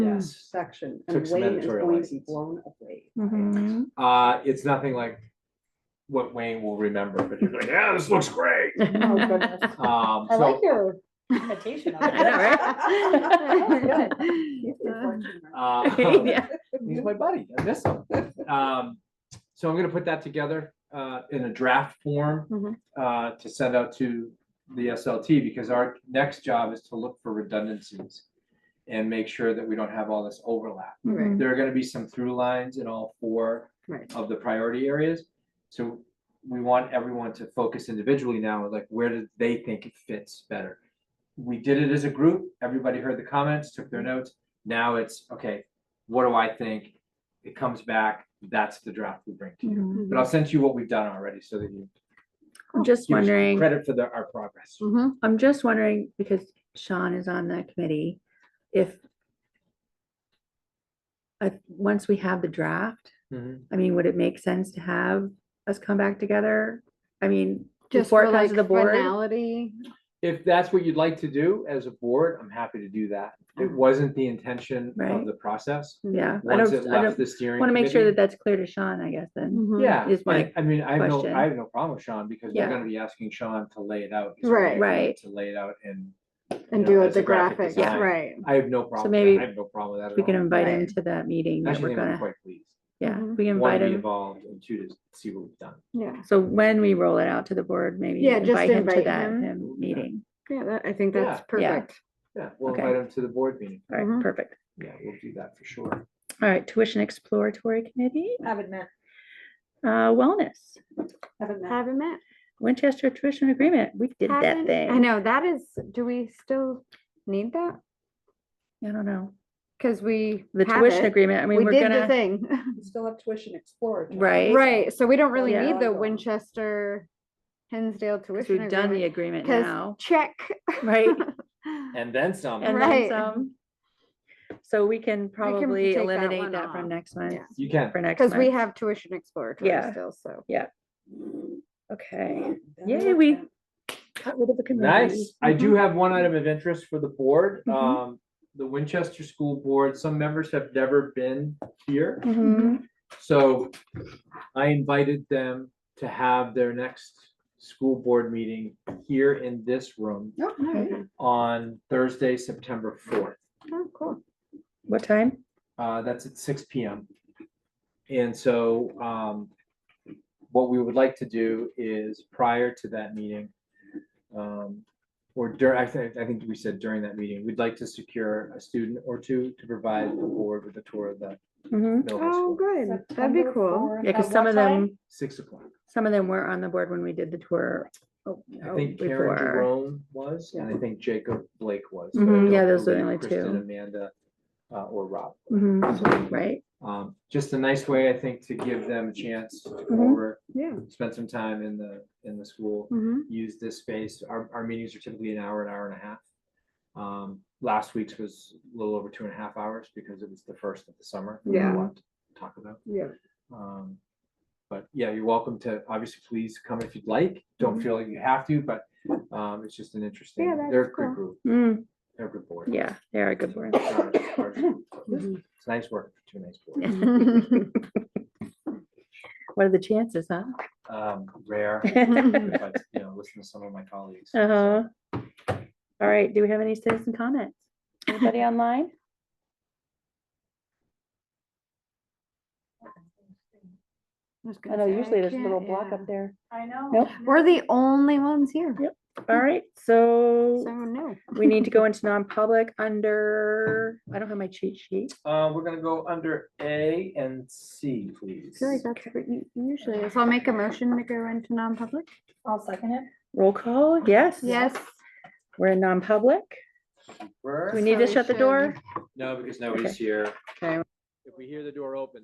Yes. section, and Took some Wayne is editorial going to be license. blown away. Mm-hmm. Mhm. Uh, it's nothing like what Wayne will remember, but he's like, yeah, this looks great. Oh, goodness. Um, I like so, your invitation. of I know, it. right? He's Uh-huh. fortunate. uh, Yeah. he's my buddy. I miss him. Um, so I'm gonna put that together, uh, in a draft Mhm. Mm-hmm. form, uh, to send out to the SLT, because our next job is to look for redundancies and make sure that we don't have all this overlap. Mm-hmm. Mhm. There are gonna be some through lines in all four Right. of the priority areas. So we want everyone to focus individually now, like where do they think it fits better? We did it as a group, everybody heard the comments, took their notes. Now it's, okay, what do I think? It comes back, that's the draft we bring to you. Mm-hmm. Mhm. But I'll send you what we've done already so that you Oh, I'm just give us wondering. credit for the, our progress. Mm-hmm. Mhm. I'm just wondering, because Sean is on that committee, if if once we have the draft, Mhm. I mean, would it make sense to have us come back together? I mean, Just before for it comes like to the board? finality. If that's what you'd like to do as a board, I'm happy to do that. It Mhm. wasn't the intention of Right. the process. Yeah, I Once it don't, I left don't, the steering. want to make sure committee- that that's clear to Sean, I guess, then. Mhm. Yeah, Hmm, is my I, I mean, I have no, question. I have no problem with Sean because they're Yeah. gonna be asking Sean to lay it out. He's already Right. agreed Right. To lay it out and. you And know, do as it the a graphics, design. right. I have no problem. with that. maybe I have no problem with that. We can at all. invite him Right. to that meeting that Actually, we're they were gonna, quite pleased. yeah, Mhm. we Want invite to be him. involved and two to see what we've done. Yeah, So when we roll it out to the board, maybe Yeah, just invite him to invite that him. him meeting. yeah, that, I think that's Yeah. Yeah. perfect. Yeah, we'll Okay. invite him to the board meeting. All right, Mhm. perfect. Yeah, we'll do that for sure. All right, tuition exploratory committee, Haven't met, uh, wellness. haven't met. Haven't met. Winchester tuition agreement, we did that haven't- thing. I know, that is, do we still need that? I don't know. Cause we The have tuition it. agreement, I mean, We we're did the gonna, thing, We Still have tuition explored. Right. right? So we don't really Yeah. need the Ongoing. Winchester Hinsdale 'cause tuition we've done the agreement. agreement Cause now, check. right? And then some. And then Right. some. So we can probably take that eliminate one that off. from next month, Yeah. You can. for next month. Cause we have tuition exploratory Yeah. still, so. Okay, Haven't Yay, met we- them. got rid of the committee. Nice. I do Mhm. have one item of interest for the board. Mhm. Um, the Winchester School Board, some members have never been here. Mm-hmm. Mhm. So I invited them to have their next school board meeting here in this room Oh, nice. on Thursday, September fourth. Oh, cool. What time? Uh, that's at six P M. And so, um, what we would like to do is prior to that meeting, um, or dur, I think, I think we said during that meeting, we'd like to secure a student or two to provide the board with a tour of the Mhm. middle high Oh, school, good. That'd be September uh, cool. fourth, Yeah, at cause some what of time? them, six o'clock. some of them were on the board when we did the tour. oh, I oh, think Karen before. Jerome was, and I think Jacob Blake was. but I Mhm, yeah, don't those are the believe only Kristen, two. Amanda, uh, or Rob. Mhm, Right? Um, just a nice way, I think, to give them a chance to come Mhm. over, Yeah. spend some time in the, in the school, Mhm. use this space. Our, our meetings are typically an hour, an hour and a half. Um, last week's was a little over two and a half hours because it was the first of the summer. We had a Yeah. lot to Talk about. Yeah. Um, but yeah, you're welcome to, obviously, please come if you'd like. Don't feel like you have to, but, um, it's just an interesting, Mm-hmm. Yeah, that's they're a good cool. group, Mm, they're a good board. yeah, they are a good board. It's our- it's our- Mhm. It's nice work, for two nice boards. What are the chances, huh? Um, rare, Uh-huh. but, you know, listen to some of my colleagues. so- All right, do we have any citizen comments? Anybody online? I was I gonna know say, usually there's a can't- little block yeah. up there. I know. Nope. We're the only ones here, Yep. All right, so so no. we need to go into non-public under, I don't have my cheat sheet. Uh, we're gonna go under A and C, I please. feel like that's what u- usually, is. so I'll make a motion to go into non-public. I'll second it. Roll call, yes? Yes. We're in non-public. We're- Do we need to So we shut the should- door? No, because nobody's here. Okay. If we hear the door open,